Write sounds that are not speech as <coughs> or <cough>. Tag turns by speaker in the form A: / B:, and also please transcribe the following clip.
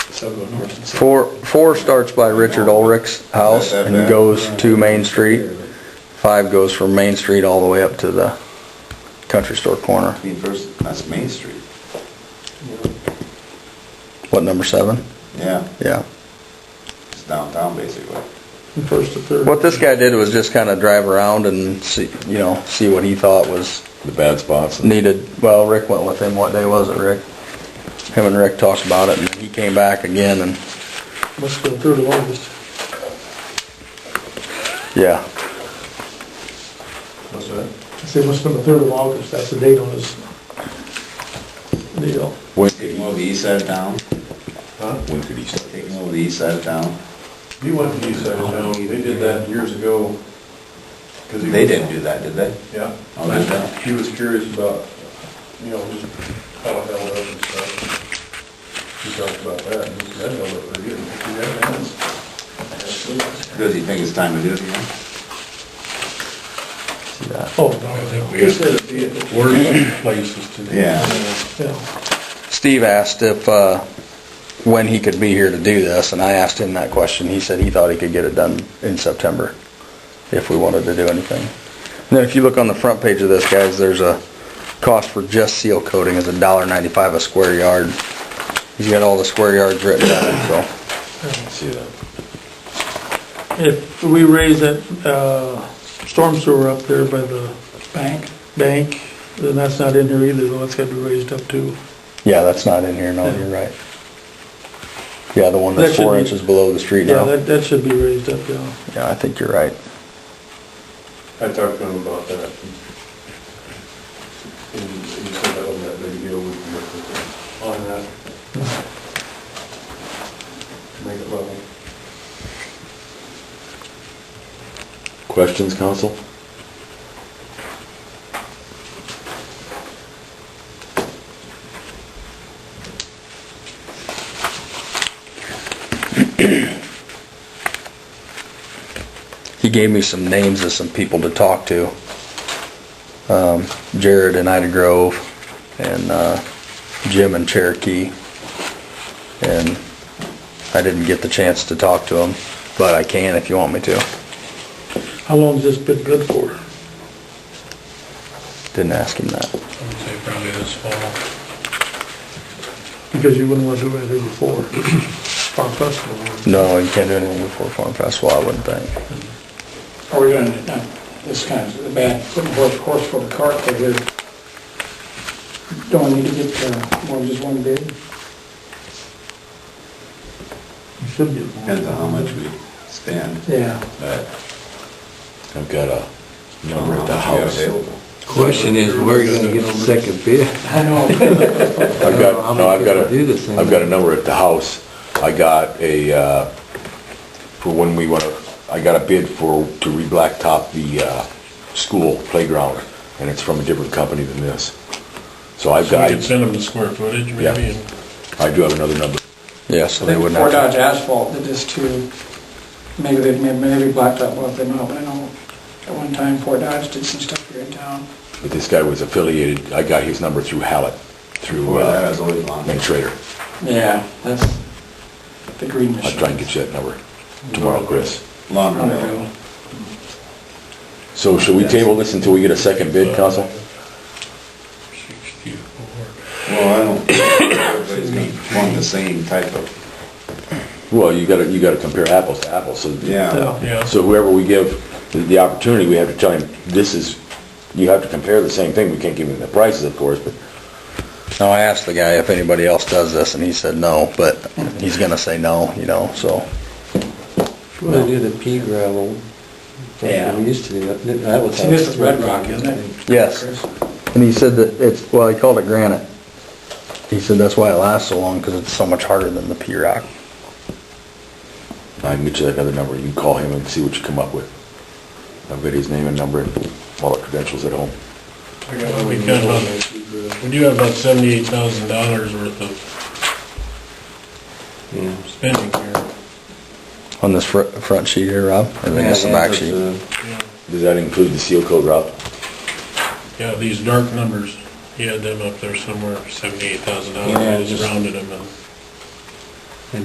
A: So go north and south.
B: Four, four starts by Richard Ulrich's house and goes to Main Street. Five goes from Main Street all the way up to the country store corner.
C: I mean, first, that's Main Street.
B: What, number seven?
C: Yeah,
B: Yeah.
C: it's downtown basically.
A: From First to third.
B: What this guy did was just kind of drive around and see, you know, see what he thought was
C: The bad spots.
B: needed. Well, Rick went with him. What day was it, Rick? Him and Rick talked about it and he came back again and,
A: Must have been third of August.
B: yeah.
C: What's that?
A: I say must have been the third of August, that's the date on his deal.
C: Taking over the east side of town,
D: When could he start?
C: taking over the east side of town.
D: He went to the east side of town, they did that years ago. 'cause he
C: They
D: was-
C: didn't do that, did they?
D: Yeah.
C: Oh, they did?
D: He was curious about, you know, just how it held up and stuff. He talked about that, and he said, that held up pretty good. He had hands.
C: Does he think it's time to do it again?
B: See that?
A: Oh, no,
D: He said it'd be at the
C: <laughs>
D: worst places to do.
C: Yeah.
A: yeah.
B: Steve asked if, uh, when he could be here to do this, and I asked him that question. He said he thought he could get it done in September if we wanted to do anything. And then if you look on the front page of this, guys, there's a cost for just seal coating is a dollar ninety-five a square yard. He's got all the square yards written down, so.
D: See that?
A: If we raise that, uh, storm sewer up there by the. Bank? Bank, then that's not in here either, though, that's gotta be raised up too.
B: Yeah, that's not in here, no, you're right. Yeah, the one
A: That
B: that's
A: should
B: four
A: be-
B: inches below the street
A: Yeah,
B: now.
A: that, that should be raised up, yeah.
B: Yeah, I think you're right.
D: I talked to him about that. And he said that on that video we can work with him on that. Make it level.
E: Questions, council?
B: he gave me some names of some people to talk to. Um, Jared in Ida Grove and, uh, Jim in Cherokee. And I didn't get the chance to talk to him, but I can if you want me to.
A: How long's this been good for?
B: Didn't ask him that.
A: I would say probably this fall. Because you wouldn't want to do anything before Farm Festival.
B: No, you can't do anything before Farm Festival, I wouldn't think.
F: Are we doing, it? Not this kind of bad, putting horse, horse for the cart, but we're, don't we need to get, uh, more than just one bid?
A: You should be.
C: Depends on how much we spend.
F: Yeah.
C: But
E: I've got a
C: I don't know
E: number at the
C: how much we got
E: house.
C: available.
G: Question is, where are you gonna get the second bid?
F: I know,
E: I've got, no, I've got
G: How am I gonna do this
E: a,
G: thing?
E: I've got a number at the house. I got a, uh, for when we wanna, I got a bid for, to re-blacktop the, uh, school playground, and it's from a different company than this. So I've
H: So
E: got,
H: we could send them the square footage
E: Yeah.
H: maybe and
E: I do have another number.
B: Yeah, so they wouldn't
F: Fort
B: have to.
F: Dodge Asphalt did this too. Maybe they, maybe Blacktop bought them out, but I know at one time Fort Dodge did some stuff here in town.
E: But this guy was affiliated, I got his number through Hallett, through,
C: Boy, that
E: uh,
C: was always long.
E: Main Trader.
F: Yeah, that's the green
E: I'll
F: machine.
E: try and get you that number tomorrow, Chris.
C: Longer.
F: Unreal.
E: So should we table this until we get a second
G: Uh,
E: bid, council?
H: sixty-four.
C: Well, I don't, <coughs> think everybody's gonna want the same type of,
E: Well, you gotta, you gotta compare apples to apples, so.
C: yeah.
H: Yeah.
E: So whoever we give the- the opportunity, we have to tell him, this is, you have to compare the same thing, we can't give him the prices, of course, but
B: Now, I asked the guy if anybody else does this and he said no, but he's gonna say no, you know, so.
G: Well, they do the pea gravel.
F: Yeah.
G: We used to do that. That was.
F: See, this is Red Rock, isn't it?
B: Yes.
F: Chris?
B: And he said that it's, well, he called it granite. He said that's why it lasts so long, because it's so much harder than the P-rock.
E: I can get you that other number, you can call him and see what you come up with. I've got his name and number and all the credentials at home.
H: We got about- we do have about seventy-eight thousand dollars worth of spending here.
B: On this fr- front sheet here, Rob? I think that's the back sheet.
H: Yeah.
E: Does that include the seal code route?
H: Yeah, these dark numbers, he had them up there somewhere, seventy-eight thousand
F: Yeah,
H: dollars,
F: just-
H: just rounded them and